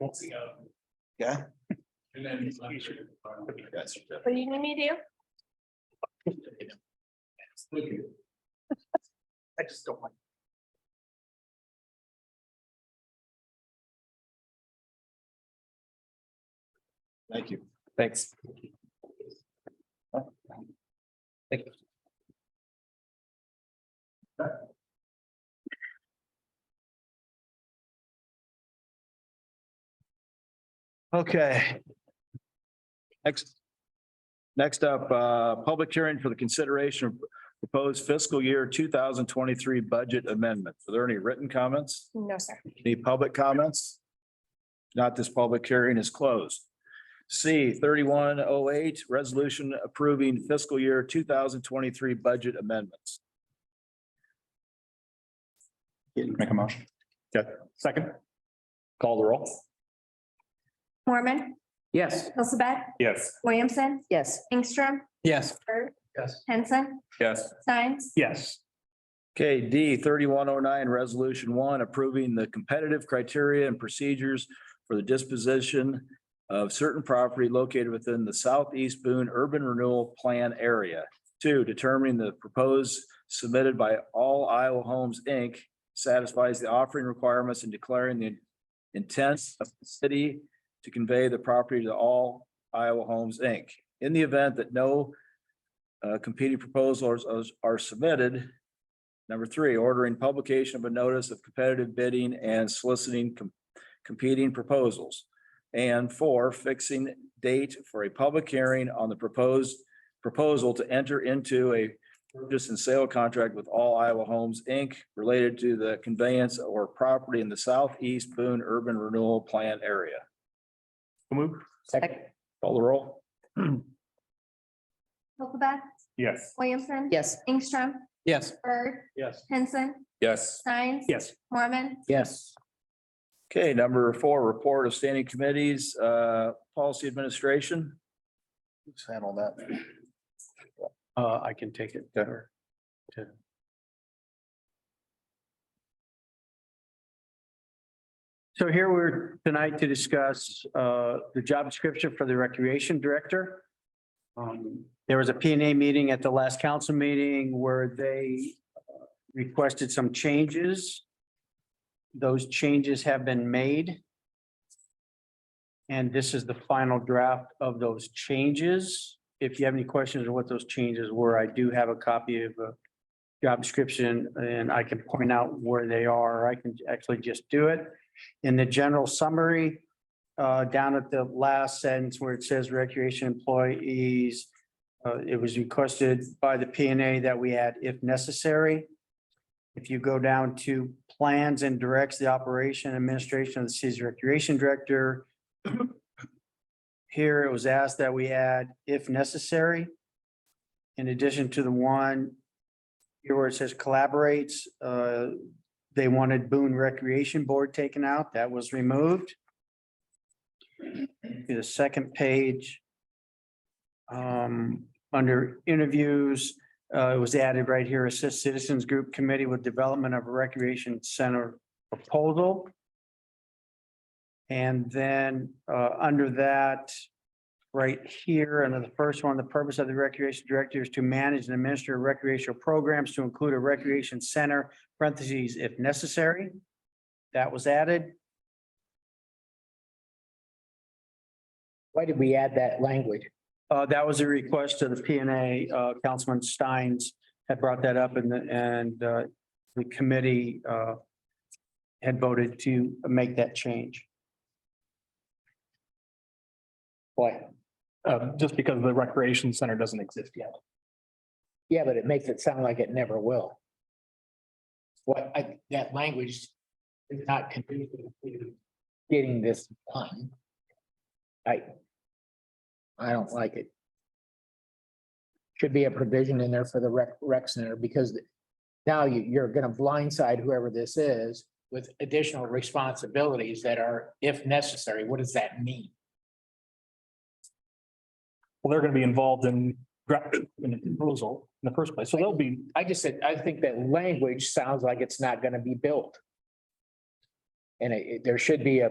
Once again. Yeah. And then. That's. What do you need me to do? I just don't like. Thank you. Thanks. Okay. Next. Next up, uh, public hearing for the consideration of proposed fiscal year two thousand twenty-three budget amendment. Are there any written comments? No, sir. Any public comments? Not this public hearing is closed. C thirty-one oh eight, resolution approving fiscal year two thousand twenty-three budget amendments. Make a motion. Okay, second. Call the roll. Mormon, Yes. Elizabeth, Yes. Williamson, Yes. Ingstrom, Yes. Bird, Yes. Henson, Yes. Science, Yes. Okay, D thirty-one oh nine, resolution one, approving the competitive criteria and procedures for the disposition of certain property located within the Southeast Boone Urban Renewal Plan area. Two, determining the proposed submitted by All Iowa Homes, Inc. satisfies the offering requirements and declaring the intent of the city to convey the property to All Iowa Homes, Inc. In the event that no uh, competing proposals are- are submitted, Number three, ordering publication of a notice of competitive bidding and soliciting com- competing proposals. And four, fixing date for a public hearing on the proposed proposal to enter into a purchase and sale contract with All Iowa Homes, Inc. related to the conveyance or property in the southeast Boone Urban Renewal Plan area. Move. Second. Call the roll. Elizabeth, Yes. Williamson. Yes. Ingstrom, Yes. Bird, Yes. Henson, Yes. Science. Yes. Mormon, Yes. Okay, number four, report of standing committees, uh, policy administration. Who's handled that? Uh, I can take it. Better. So here we're tonight to discuss uh, the job description for the Recreation Director. Um, There was a P and A meeting at the last council meeting where they uh, requested some changes. Those changes have been made. And this is the final draft of those changes. If you have any questions on what those changes were, I do have a copy of a job description and I can point out where they are. I can actually just do it in the general summary, uh, down at the last sentence where it says recreation employees, uh, it was requested by the P and A that we add if necessary. If you go down to plans and directs the operation and administration of the city's recreation director. Here it was asked that we add if necessary. In addition to the one here where it says collaborates, uh, they wanted Boone Recreation Board taken out. That was removed. To The second page. Um, under interviews, uh, it was added right here, assist citizens group committee with development of a recreation center proposal. And then, uh, under that, right here, under the first one, the purpose of the recreation director is to manage and administer recreational programs to include a recreation center parentheses, if necessary. That was added. Why did we add that language? Uh, that was a request to the P and A. Uh, Councilman Steins had brought that up and, the- and, uh, the committee, uh, had voted to make that change. Why? Uh, just because the recreation center doesn't exist yet. Yeah, but it makes it sound like it never will. What, I, that language is not conducive to getting this done. I, I don't like it. Should be a provision in there for the rec, rec center because now you, you're gonna blindside whoever this is with additional responsibilities that are, if necessary, what does that mean? Well, they're gonna be involved in gra- in the proposal in the first place. So they'll be, I just said, I think that language sounds like it's not gonna be built. And it, it- there should be a